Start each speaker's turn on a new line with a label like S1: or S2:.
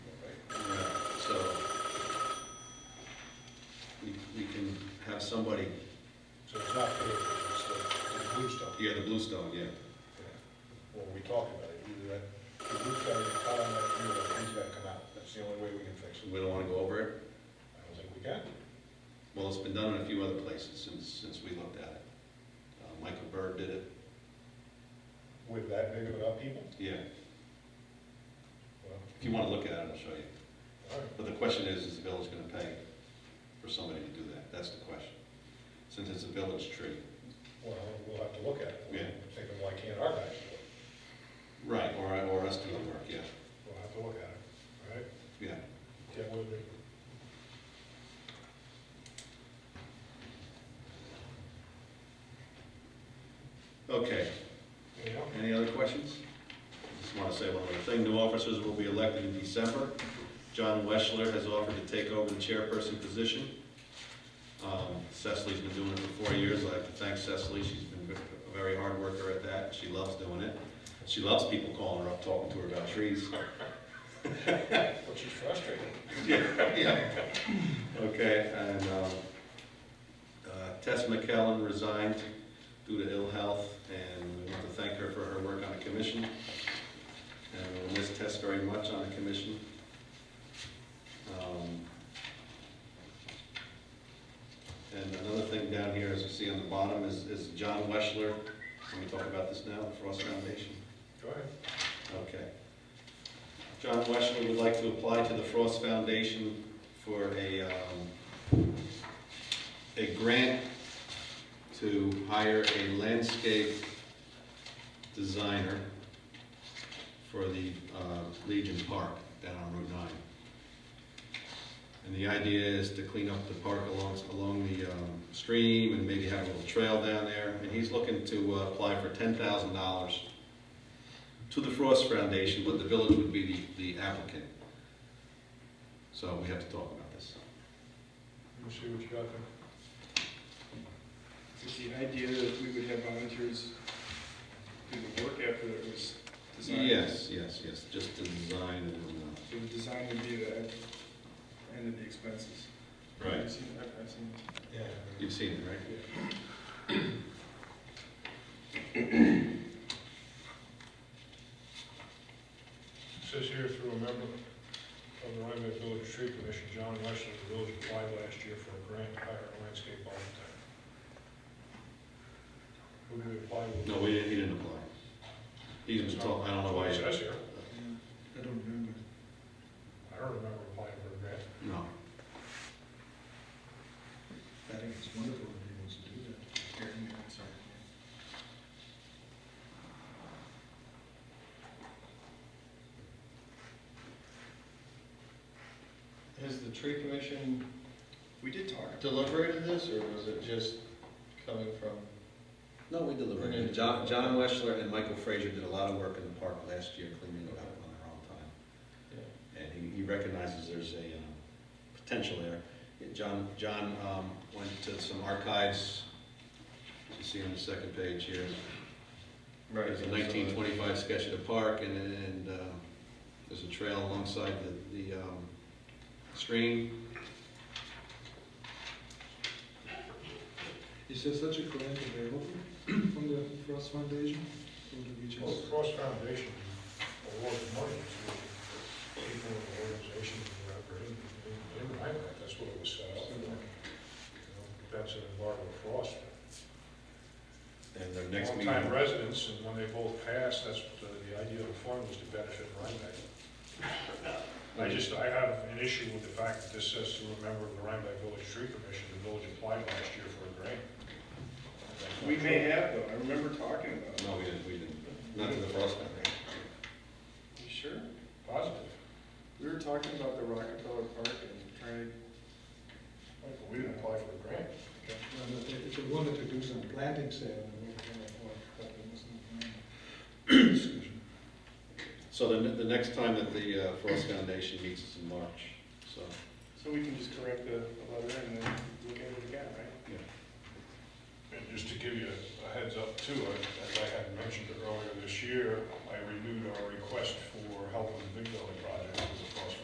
S1: have somebody,
S2: So it's not paid, it's the, it's Bluestone.
S1: yeah, the Bluestone, yeah.
S2: Well, we talked about it, either that, the roof's gotta get cut on that year, or the roof's gotta come out, that's the only way we can fix it.
S1: We don't wanna go over it.
S2: I don't think we can.
S1: Well, it's been done in a few other places since, since we looked at it. Uh, Michael Bird did it,
S2: With that big of an upheaval?
S1: yeah.
S2: Well,
S1: If you wanna look at it, I'll show you.
S2: all right.
S1: But the question is, is the village gonna pay for somebody to do that? That's the question. Since it's a village tree.
S2: Well, we'll have to look at it.
S1: Yeah.
S2: Thinking, why can't our guys do it?
S1: Right, or, or us doing the work, yeah,
S2: We'll have to look at it, all right?
S1: yeah.
S2: Yeah, we'll do.
S1: Okay,
S2: You know?
S1: any other questions? Just wanna say one other thing, new officers will be elected in December. John Weschler has offered to take over the chairperson position. Um, Cecily's been doing it for four years, I'd like to thank Cecily, she's been a very hard worker at that, she loves doing it. She loves people calling her up, talking to her about trees.
S2: But she's frustrated.
S1: Yeah. Okay, and um, uh, Tess McKellen resigned due to ill health, and we want to thank her for her work on the commission. And we'll miss Tess very much on the commission. Um, And another thing down here, as you see on the bottom, is is John Weschler. Can we talk about this now, the Frost Foundation?
S2: Go ahead.
S1: Okay. John Weschler would like to apply to the Frost Foundation for a, um, a grant to hire a landscape designer for the uh, Legion Park down on Route 9. And the idea is to clean up the park along, along the um, stream and maybe have a little trail down there. And he's looking to uh, apply for $10,000 to the Frost Foundation, but the village would be the, the applicant. So we have to talk about this.
S2: We'll see what you got there.
S3: Is the idea that we would have volunteers do the work after it was designed?
S1: Yes, yes, yes, just the uh, design and,
S3: So the design would be the end of the expenses?
S1: uh.
S3: I've seen, I've I've seen it.
S2: Yeah.
S1: You've seen it, right?
S2: Says here through a member of the Rhinebeck Village Tree Commission, John Wesley, the village applied last year for a grant to hire a landscape architect. Who did we apply with?
S1: No, we didn't, he didn't apply. He's been talking, I don't know why,
S2: It
S1: he-
S2: says here,
S3: Yeah. I don't remember.
S2: I don't remember applying for a grant.
S1: no.
S3: I think it's wonderful that he wants to do that. Aaron, yeah, I'm sorry.
S4: Has the tree commission
S3: We did talk.
S4: deliberated this, or was it just coming from?
S1: No, we deliberated. John, John Weschler and Michael Frazier did a lot of work in the park last year cleaning it up on their own time. and he, he recognizes there's a um, potential there. Yeah, John, John um, went to some archives, as you see on the second page here. There's a
S3: uh,
S1: nineteen twenty-five sketch of the park, and, and uh, there's a trail alongside the, the um, stream.
S5: Is there such a grant available from the Frost Foundation, from the regions?
S2: Well, the Cross Foundation awarded money to people and organizations who are operating in- in Rhinebeck, that's what it was set up. for. You know, That's an embargo of frost.
S1: And their next meeting,
S2: Long-time residents, and when they both passed, that's, the the idea of the fund was to benefit Rhinebeck. I just, I have an issue with the fact that this says to a member of the Rhinebeck Village Tree Commission, the village applied last year for a grant. That's not
S3: Oh, We may
S2: true.
S3: have though, I remember talking about it.
S1: no, we didn't, we didn't, not to the Frost Foundation.
S3: You sure?
S2: Positive.
S3: We were talking about the Rockefeller Park and trying to
S2: Like, We didn't apply for a grant.
S5: No, no, they- If they wanted to do some planting sale, they would have, or, but there was no grant.
S1: So the, ne- the next time that the uh, Frost Foundation meets is in March, so.
S3: So we can just correct the the letter and then look at it again, right?
S2: And just to give you a heads up too, I- as I had mentioned earlier this year, I renewed our request for help with the Big Building Project.